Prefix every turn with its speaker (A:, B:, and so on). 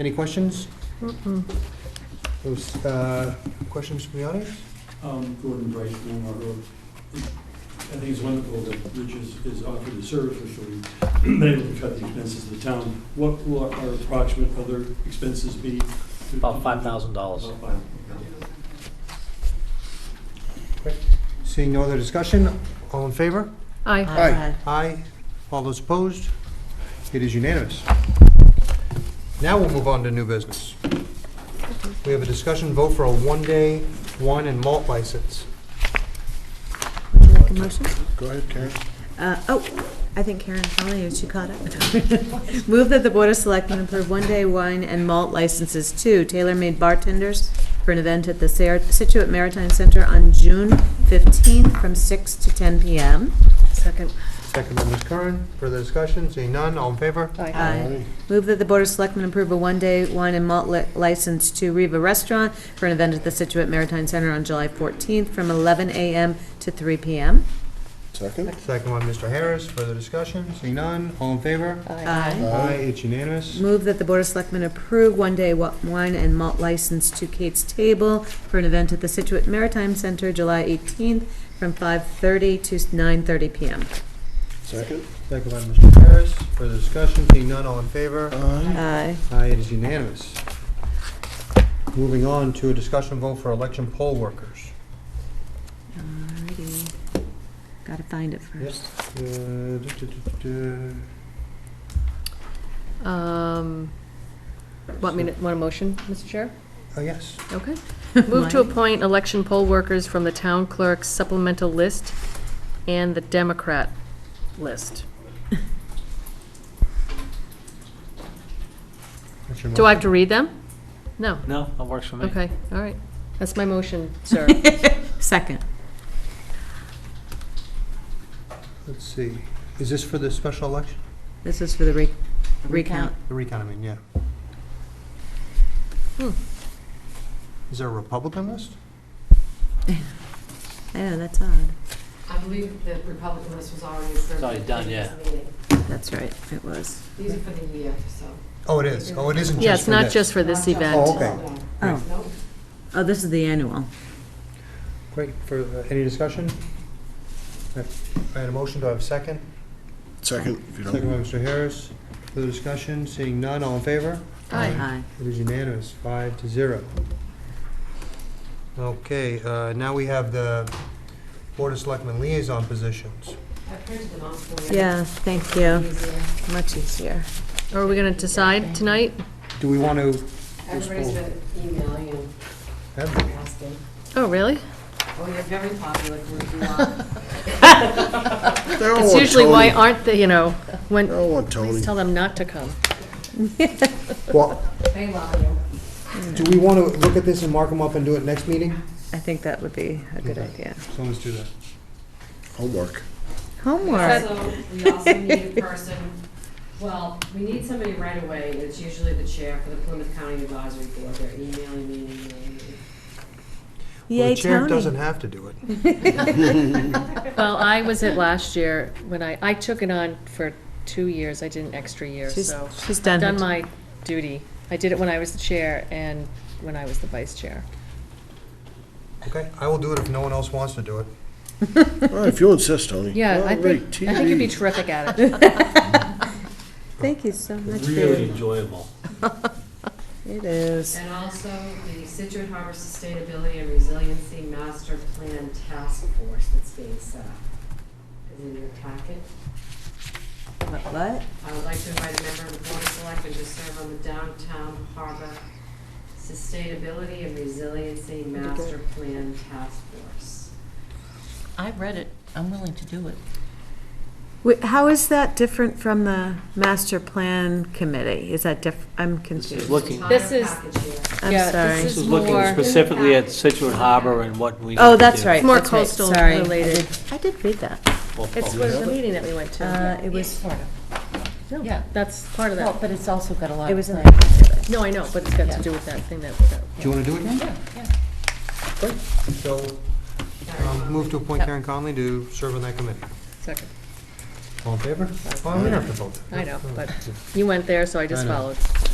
A: Any questions? Those, uh, Questions from the audience?
B: Um, Gordon Bryce, Walmart Road. I think it's wonderful that Rich is, is offered his service for free, been able to cut the expenses of the town. What will our our approximate other expenses be?
C: About five thousand dollars.
B: About five.
A: Seeing no other discussion, all in favor?
D: Aye.
E: Aye.
A: Aye. All those opposed? It is unanimous. Now we'll move on to new business. We have a discussion vote for a one-day wine and malt license.
E: Would you like a motion?
A: Go ahead, Karen.
E: Uh, Oh, I think Karen finally, she caught up. Move that the Board of Selectmen approve one-day wine and malt licenses to tailor-made bartenders for an event at the Sar- Situate Maritime Center on June 15th from 6 to 10 PM.
D: Second.
A: Second by Ms. Curran. Further discussion? Seeing none, all in favor?
E: Aye. Move that the Board of Selectmen approve a one-day wine and malt li- license to Riva Restaurant for an event at the Situate Maritime Center on July 14th from 11 AM to 3 PM.
F: Second?
A: Second by Mr. Harris. Further discussion? Seeing none, all in favor?
E: Aye.
A: Aye, it's unanimous.
E: Move that the Board of Selectmen approve one-day wa- wine and malt license to Kate's Table for an event at the Situate Maritime Center, July 18th, from 5:30 to 9:30 PM.
F: Second?
A: Second by Mr. Harris. Further discussion? Seeing none, all in favor?
F: Aye.
E: Aye.
A: Aye, it is unanimous. Moving on to a discussion vote for election poll workers.
E: Alrighty. Gotta find it
A: Yes.
E: first.
A: uh, duh, duh, duh, duh.
D: Um, Want me to, want a motion, Mr. Chair?
A: Oh, yes.
D: Okay. Move to
E: Mine.
D: appoint election poll workers from the town clerk's supplemental list and the Democrat list.
A: That's your
D: Do I
A: motion.
D: have to read them? No.
C: No, that works for me.
D: Okay, all right. That's my motion, sir.
E: Second.
A: Let's see. Is this for the special election?
E: This is for the re- recount.
A: The recount, I mean, yeah.
D: Hmm.
A: Is there a Republican list?
E: I know, that's odd.
G: I believe that Republican list was already approved.
C: It's already done, yeah.
E: That's right, it was.
G: These are for the year, so.
A: Oh, it is. Oh, it isn't just for this.
D: Yeah, it's not just for this
A: Oh,
D: event.
A: okay.
E: Oh.
G: Nope.
E: Oh, this is the annual.
A: Great. For, uh, any discussion? Uh, I had a motion. Do I have a second?
F: Second, if you
A: Second by
F: don't.
A: Mr. Harris. Further discussion? Seeing none, all in favor?
D: Aye.
A: It is unanimous, five to zero. Okay, uh, now we have the Board of Selectmen liaison positions.
G: I printed them off for you.
E: Yeah, thank you.
G: Easier.
E: Much easier.
D: Are we going to decide tonight?
A: Do we want to?
G: Everybody's been emailing and asking.
D: Oh, really?
G: Oh, you're very popular, Gordon. You are.
D: That's usually why aren't they, you know, when,
F: Oh, want
D: please
F: Tony.
D: tell them not to come.
A: Well,
G: They love you.
A: do we want to look at this and mark them up and do it next meeting?
E: I think that would be a good idea.
A: So let's do that.
F: Homework.
E: Homework.
G: Also, we also need a person, well, we need somebody right away, and it's usually the chair for the Plymouth County Advisory Board. They're emailing me and emailing me.
A: Well,
E: Yay,
A: The chair doesn't
E: Tony.
A: have to do it.
D: Well, I was it last year when I, I took it on for two years. I did an extra year,
E: She's,
D: so.
E: she's done her
D: Done my duty. I did it when I was the chair and when I was the vice chair.
A: Okay, I will do it if no one else wants to do it.
F: Well, If you insist, Tony.
D: Yeah, I
F: All
D: think,
F: right,
D: I think you'd be
F: TV.
D: terrific at it.
E: Thank you so much,
C: Really
E: David.
C: enjoyable.
E: It is.
G: And also the Situate Harbor Sustainability and Resiliency Master Plan Task Force that's being set up. Is in your packet.
E: What?
G: I would like to invite a member of the Board of Selectmen to serve on the Downtown Harbor Sustainability and Resiliency Master Plan Task Force.
H: I read it. I'm willing to do it.
E: Wait, how is that different from the master plan committee? Is that diff, I'm
C: This is
E: confused.
C: looking,
G: Entire
D: This is-
G: package here.
E: I'm
D: Yeah,
E: sorry.
C: this is looking
D: more-
C: specifically at Situate Harbor and what we.
E: Oh,
C: need to
E: that's
C: do.
E: right.
D: It's more
E: that's right,
D: coastal
E: sorry. I
D: related.
E: did- I did read that.
C: Well,
D: It's
C: well,
D: was the meeting that we went to.
E: Uh, it was,
H: Sort of.
D: Yeah, that's part of
H: Well,
D: that.
H: but it's also got a lot
E: it
H: of.
E: was in the
H: planning.
D: No, I know, but it's got to do with that thing that, that-
A: Do you want to do it now?
H: Yeah, yeah.
A: Great. So, um, move to appoint Karen Conley to serve on that committee.
D: second.
A: All in favor? Well, we don't have to vote.
D: I know, but you went there, so I just
A: I know.
D: followed.